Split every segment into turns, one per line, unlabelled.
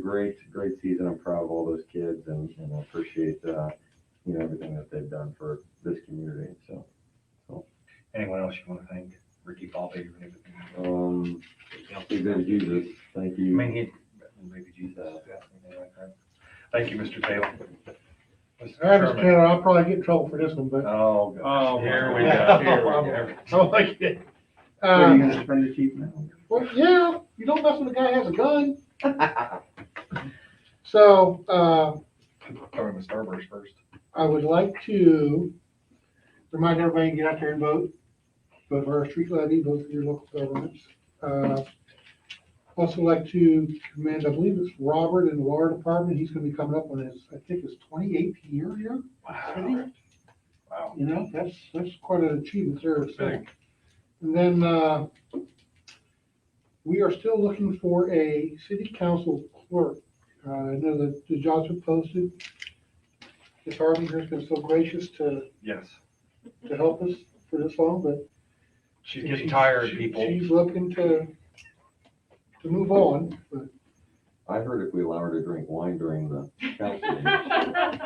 great, great season. I'm proud of all those kids and, and I appreciate, uh, you know, everything that they've done for this community. So,
Anyone else you want to thank? Ricky Bobby or anything?
um, big
I
thank you, Jesus. Thank you.
mean, he, maybe Jesus. yeah, something like that. Thank you, Mr. Taylor. Mr.
I
Sherman.
understand, I'll probably get in trouble for this one, but
Oh,
Oh,
God. here we
my
go, here we go.
I like it.
Oh, What are you
Uh,
gonna spend the cheap now?
well, yeah, you don't mess when the guy has a gun. So, uh,
Sorry, Mr. Starburst first.
I would like to remind everybody to get out there and vote. Vote for our street levy, vote for your local governments. Uh, Also like to commend, I believe it's Robert in the water department. He's gonna be coming up on his, I think his twenty-eighth year here.
Wow. Wow.
You know, that's, that's quite an achievement there. so.
Big.
And then, uh, we are still looking for a city council clerk. Uh, I know that the jobs are posted. Ms. Harvey has been so gracious to
Yes.
to help us for this long, but.
She's getting tired,
she-
people.
She's looking to, to move on, but
I heard if we allow her to drink wine during the council, meeting,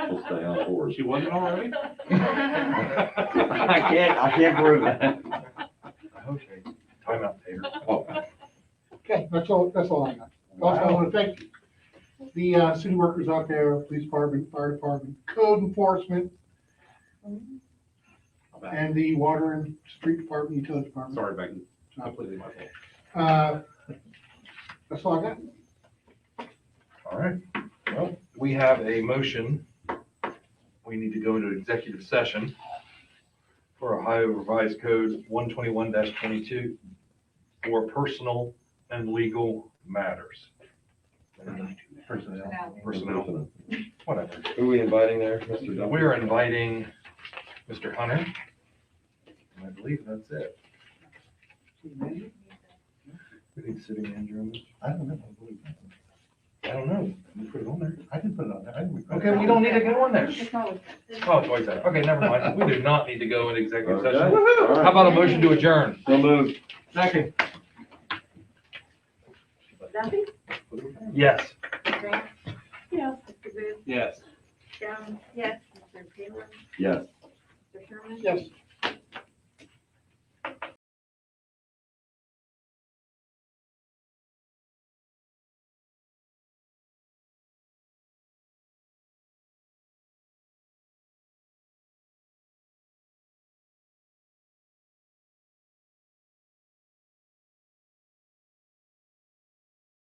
she'll stay on board.
She wasn't already?
I can't, I can't prove that.
Okay. Time out, Taylor.
okay, that's all, that's all I got. Also, I
Wow.
want to thank the uh, city workers out there, police department, fire department, code enforcement, and the water and street department, utility department.
Sorry, Becky, completely my fault.
Uh, That's all I got.
All right. Well, we have a motion. We need to go into executive session for Ohio Revised Code one twenty-one twenty-two for personal and legal matters. Personnel, personnel, whatever.
Who are we inviting there, Mr. Duncan?
We're inviting Mr. Hunter. And I believe that's it. We need city manager. on this?
I don't know. I believe that.
I don't know. You put it on there.
I didn't put it on there. I didn't. request
Okay,
it.
we don't need to go on there.
It's always-
Oh, it's always there. Okay, never mind. We do not need to go into executive
Okay.
session.
All right.
How about a motion to adjourn?
So moved.
Second.
Duffy?
Yes.
Grant? Yes. Mr. Booth?
Yes.
Jones? Yes. Mr. Taylor?
Yes.
Mr. Sherman?
Yes.